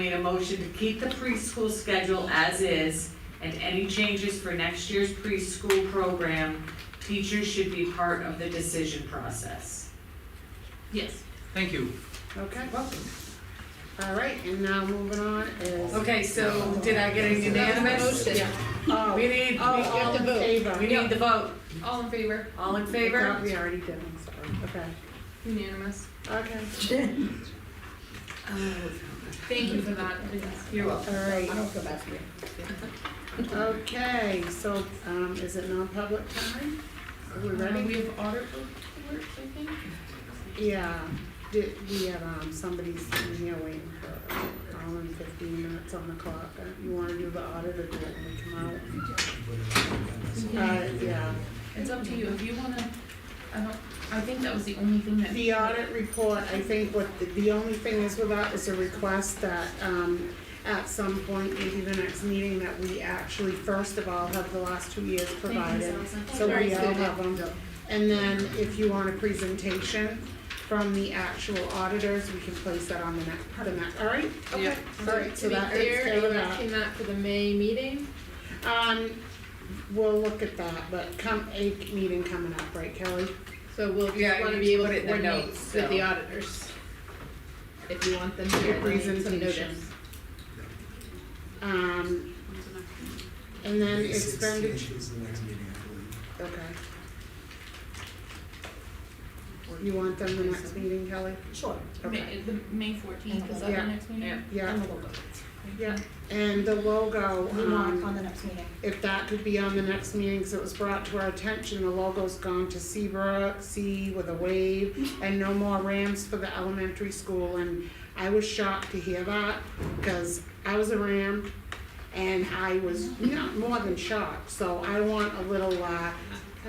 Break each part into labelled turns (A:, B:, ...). A: Need a motion to keep the preschool schedule as is, and any changes for next year's preschool program, teachers should be part of the decision process.
B: Yes.
C: Thank you.
B: Okay, welcome. All right, and now moving on is.
A: Okay, so did I get a unanimous?
D: Motion.
B: Oh,
A: We need, we
B: Oh, all in favor.
A: we need the vote.
D: All in favor?
A: All in
B: I thought
A: favor?
B: We already did, I'm sorry, okay.
D: Unanimous.
B: Okay.
D: Thank you for that.
A: You're welcome.
B: All right,
E: don't go back here.
B: okay, so, um, is it non-public time? Are we
D: Uh, We
B: ready?
D: have audit reports, I think.
B: Yeah, did, we have, um, somebody's in here waiting for, all in fifteen minutes on the clock. Uh, You wanna do the audit or do it when we come out? Uh, yeah,
D: It's up to you. If you wanna, I don't, I think that was the only thing that.
B: The audit report, I think what, the- the only thing is with that is a request that, um, at some point, maybe the next meeting, that we actually, first of all, have the last two years provided. So we all have them. And then if you want a presentation from the actual auditors, we can place that on the next, the next, all right?
D: Yeah.
B: Okay, all right, so
E: To be
B: that is
E: clear,
B: clear
E: are
B: with
E: you
B: that.
E: asking that for the May meeting?
B: Um, we'll look at that, but come, a meeting coming up, right, Kelly?
E: So we'll
A: Yeah,
E: just
A: you
E: wanna
A: need
E: be
A: to
E: able
A: put
E: to
A: it in the
E: coordinate
A: notes,
E: with the
A: so.
E: auditors. If you want them to get some notice.
B: presentation. Um, and then expenditure,
F: Is the next meeting, I believe.
B: okay. You want them the next meeting, Kelly?
E: Sure.
B: Okay,
D: May, the May fourteenth, is that
B: Yeah.
D: the next meeting?
A: Yeah.
B: yeah,
D: Yeah.
B: yeah, and the logo, um,
E: the next meeting.
B: if that could be on the next meeting, 'cause it was brought to our attention, the logo's gone to Seabrook, C with a wave, and no more Rams for the elementary school, and I was shocked to hear that, cause I was a Ram, and I was not more than shocked, so I want a little, uh,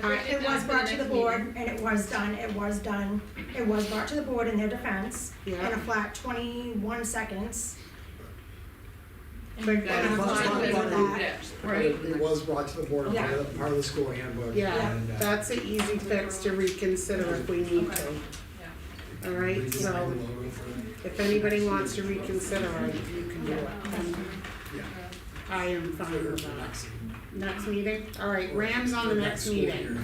B: I-
D: Have we
G: It
D: done
G: was
D: for
G: brought to the
D: next
G: board, and it was done, it was done, it was brought to the board in their defense, in
B: yeah.
G: a flat twenty-one seconds.
D: meeting? And
B: But
D: that's
B: that's
D: fine
B: not
D: with
F: what
D: that. Right.
F: It was brought to the board, by the- part of the school handbook.
B: Yeah,
F: and, uh,
B: that's an easy fix to reconsider if we need to. All
F: we
B: right,
F: designed
B: so
F: the logo for them.
B: if anybody wants to reconsider, I- you can do it.
F: Yeah.
B: I am fine
F: For
B: with
F: the
B: that.
F: next-
B: Next meeting? All right, Rams on the
F: for
B: next
F: school
B: meeting.
F: year.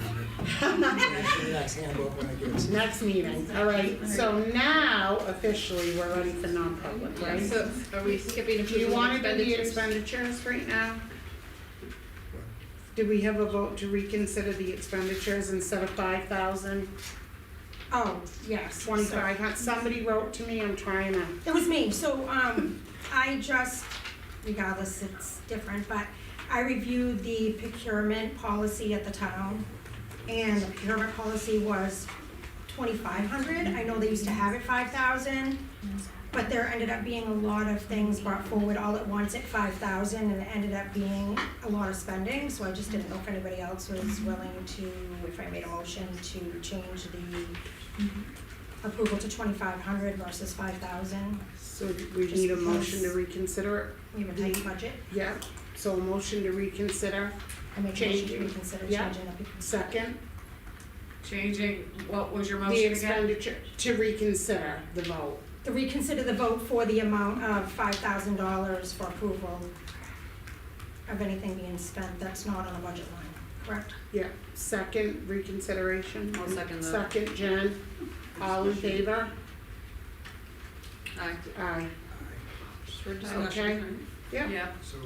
F: For the next handbook when it gets.
B: Next meeting, all right. So now officially, we're ready for non-public, right?
E: So are we skipping
B: Do you
E: approval of
B: want to do the
E: expenditures?
B: expenditures right now? Do we have a vote to reconsider the expenditures instead of five thousand,
G: Oh, yes.
B: twenty-five hundred? Somebody wrote to me, I'm trying to
G: It was me, so, um, I just, regardless, it's different, but I reviewed the procurement policy at the town. And the procurement policy was twenty-five hundred, I know they used to have it five thousand, but there ended up being a lot of things brought forward all at once at five thousand, and it ended up being a lot of spending, so I just didn't know if anybody else was willing to, if I made a motion to change the approval to twenty-five hundred versus five thousand.
B: So we need a motion to reconsider,
G: We have a tight budget.
B: it. yeah, so a motion to reconsider,
G: I make a motion to
B: Change.
G: reconsider
B: Yeah.
G: changing up. the-
B: second,
A: Changing, what was your
B: the
A: motion again?
B: expenditure, to reconsider the vote.
G: To reconsider the vote for the amount of five thousand dollars for approval of anything being spent that's not on the budget line, correct?
B: Yeah, second reconsideration.
D: I'll second that.
B: Second, Jen, all in favor?
D: Aye.
B: Aye,
D: For
B: Okay.
D: discussion.
B: yeah,
F: So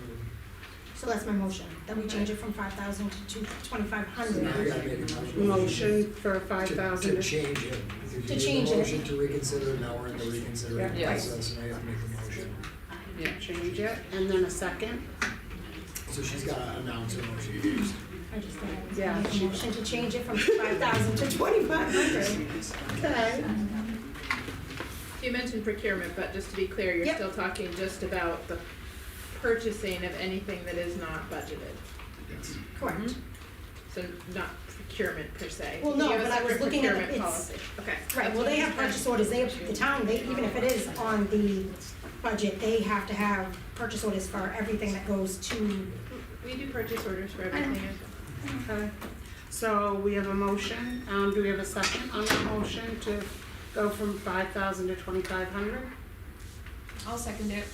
G: So that's my motion, that we change it from five thousand to two, twenty-five
F: now you
G: hundred.
F: gotta make a motion.
B: motion for five
F: To-
B: thousand.
F: To change it. If you
G: To
F: did the
G: change it.
F: Motion to reconsider, now we're in the reconsidering
B: Yeah.
F: process, and I have to make the motion.
B: Change it, and then a second,
F: So she's gotta announce her motion.
G: I just think I was
B: Yeah,
G: gonna make
B: she-
G: a motion to change it from five thousand to twenty-five hundred.
B: okay,
E: You mentioned procurement, but just to be clear, you're
G: Yep.
E: still talking just about the purchasing of anything that is not budgeted.
F: Yes.
B: Mm-hmm.
G: Correct,
E: So not procurement per se.
G: Well, no,
E: You have a
G: but I was
E: separate
G: looking at the-
E: procurement
G: it's-
E: policy. Okay.
G: right, well, they have purchase orders, they, have- the town, they, even if it is on the budget, they have to have purchase orders for everything that goes to
E: We do purchase orders for everything. as well.
B: okay. So we have a motion, um, do we have a second on the motion to go from five thousand to twenty-five hundred?
D: I'll second it.